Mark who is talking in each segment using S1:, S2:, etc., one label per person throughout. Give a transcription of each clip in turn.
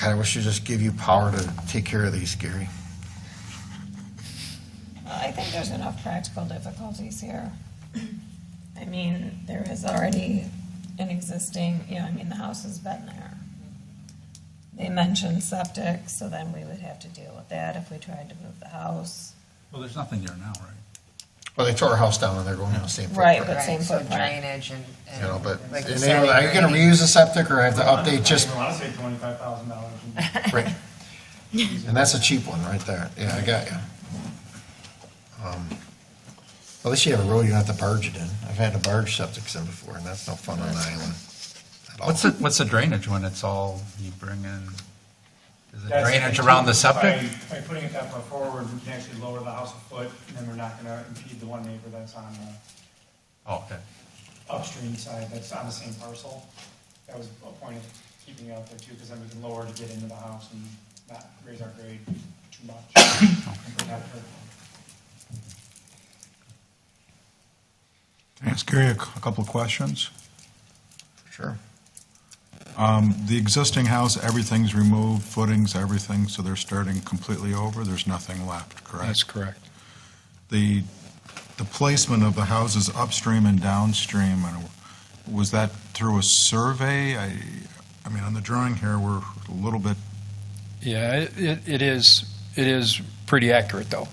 S1: God, I wish to just give you power to take care of these, Gary.
S2: Well, I think there's enough practical difficulties here. I mean, there is already an existing, you know, I mean, the house has been there. They mentioned septic, so then we would have to deal with that if we tried to move the house.
S3: Well, there's nothing there now, right?
S1: Well, they tore our house down and they're going on the same
S2: Right,
S1: footprint.
S2: but same
S4: so
S2: footprint.
S4: Drainage and.
S1: You know, but,
S4: like
S1: and they
S4: you said,
S1: were like, are you gonna
S4: grading."
S1: reuse the septic or I have to update just,
S5: I want to say twenty-five thousand dollars.
S1: right? And that's a cheap one right there. Yeah, I got you. Um, At least you have a road you don't have to barge it in. I've had to barge septic in before and that's no fun on an island. at all.
S3: What's the, what's the drainage when it's all, you bring in, is it
S5: That's-
S3: drainage around the septic?
S5: By by putting it that far forward, we can actually lower the house a foot, and then we're not gonna impede the one neighbor that's on the
S3: Oh, okay.
S5: upstream side, that's on the same parcel. That was a point of keeping it out there too, because then we can lower to get into the house and not raise our grade too much. And protect her.
S6: Can I ask Gary a cou- a couple of questions?
S1: Sure.
S6: The existing house, everything's removed, footings, everything, so they're starting completely over, there's nothing left, correct?
S7: That's correct.
S6: The, the placement of the houses upstream and downstream, and was that through a survey? I, I mean, on the drawing here, we're a little bit,
S7: Yeah, it- it, it is, it is pretty accurate, though.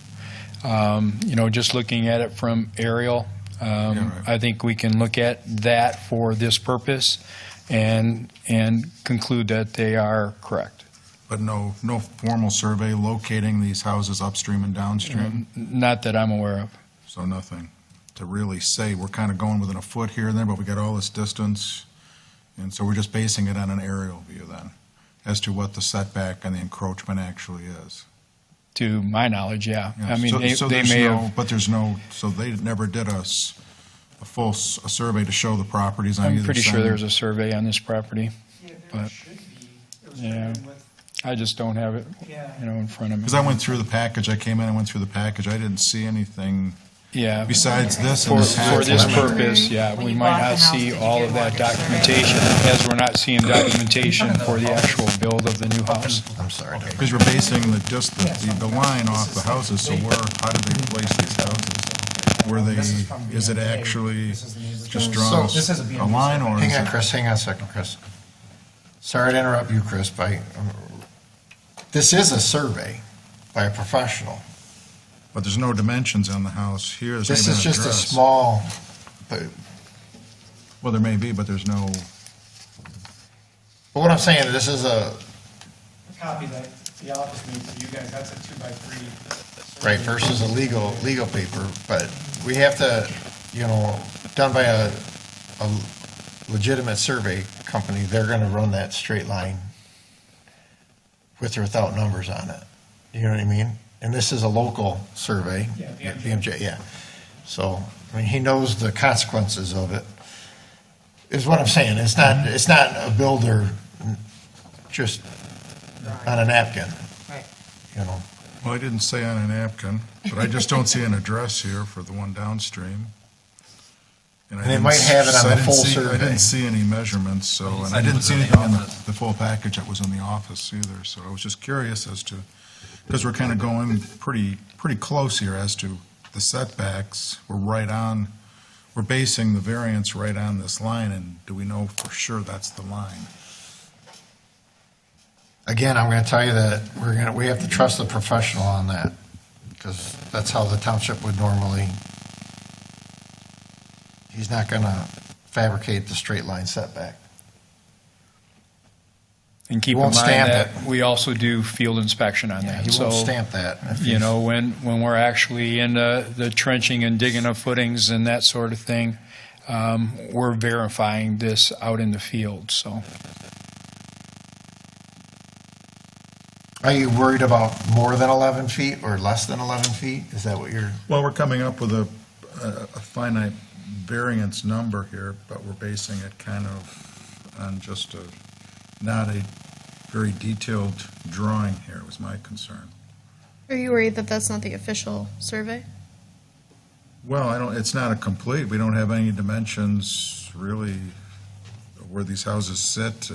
S7: Um, You know, just looking at it from aerial,
S6: Yeah,
S7: um,
S6: right.
S7: I think we can look at that for this purpose and, and conclude that they are correct.
S6: but no, no formal survey locating these houses upstream and downstream,
S7: Not that I'm aware of.
S6: so nothing to really say. We're kind of going within a foot here and there, but we got all this distance, and so we're just basing it on an aerial view then, as to what the setback and the encroachment actually is.
S7: To my knowledge, yeah.
S6: Yeah,
S7: I mean,
S6: so-
S7: they
S6: so
S7: they
S6: there's
S7: may
S6: no-
S7: have,
S6: But there's no, so they never did a, s- a full, s- a survey to show the properties on either side?
S7: I'm pretty sure there's a survey on this property.
S5: Yeah, there
S7: But-
S5: should be. It was
S7: Yeah.
S5: written with-
S7: I just don't have it,
S5: Yeah.
S7: you know, in front of me.
S6: Because I went through the package, I came in, I went through the package, I didn't see anything
S7: Yeah.
S6: besides this and
S7: For,
S6: this
S7: for this
S6: half.
S7: purpose, yeah,
S4: When
S7: we
S4: you
S7: might
S4: bought the
S7: not
S4: house, did
S7: see
S4: you
S7: all
S4: get
S7: of
S4: one
S7: that
S4: that's surveyed?
S7: documentation, as we're not seeing documentation for the actual build of the new house.
S1: I'm sorry. Doug.
S6: Because you're basing the, just the, the- the line off the houses, so where, how did they place these houses? Were they,
S5: This is from
S6: is it
S5: B&B.
S6: actually
S5: This is the neighbor's
S6: just
S5: house.
S6: drawn
S1: So- This
S5: is a
S6: a
S5: B&B
S6: line, or is
S1: Hang on,
S6: it?
S1: Chris, hang on a second, Chris. Sorry to interrupt you, Chris, but I- um, this is a survey by a professional.
S6: But there's no dimensions on the house here, there's not
S1: This
S6: even
S1: is
S6: an
S1: just a
S6: address.
S1: small, but
S6: Well, there may be, but there's no,
S1: but what I'm saying, this is a,
S5: Copy that, the office needs to you guys, that's a two-by-three.
S1: right, versus a legal, legal paper, but we have to, you know, done by a, a legitimate survey company, they're gonna run that straight line with or without numbers on it. You know what I mean? And this is a local survey.
S5: Yeah, BMJ.
S1: BMJ, yeah. So, I mean, he knows the consequences of it, is what I'm saying. It's not, it's not a builder just on a napkin,
S4: Right.
S1: you know?
S6: well, I didn't say on a napkin, but I just don't see an address here for the one downstream. I
S1: And they
S6: didn't
S1: might have it on
S6: s- I
S1: the
S6: didn't
S1: full
S6: see-
S1: survey.
S6: I didn't see any measurements, so, and I didn't see anything in the, the full package that was in the office either, so I was just curious as to, because we're kind of going pretty, pretty close here as to the setbacks, we're right on, we're basing the variance right on this line, and do we know for sure that's the line?
S1: Again, I'm going to tell you that we're going to, we have to trust the professional on that because that's how the township would normally. He's not going to fabricate the straight line setback.
S7: And keep in
S1: won't
S7: mind
S1: stamp
S7: that
S1: it.
S7: we also do field inspection on
S1: Yeah,
S7: that.
S1: he
S7: So,
S1: won't stamp that. if
S7: You
S1: he's-
S7: know, when, when we're actually in the, the trenching and digging of footings and that sort of thing, um, we're verifying this out in the field, so.
S1: Are you worried about more than 11 feet or less than 11 feet? Is that what you're,
S6: Well, we're coming up with a, a a finite variance number here, but we're basing it kind of on just a, not a very detailed drawing here was my concern.
S8: Are you worried that that's not the official survey?
S6: Well, I don't, it's not a complete, we don't have any dimensions really where these houses sit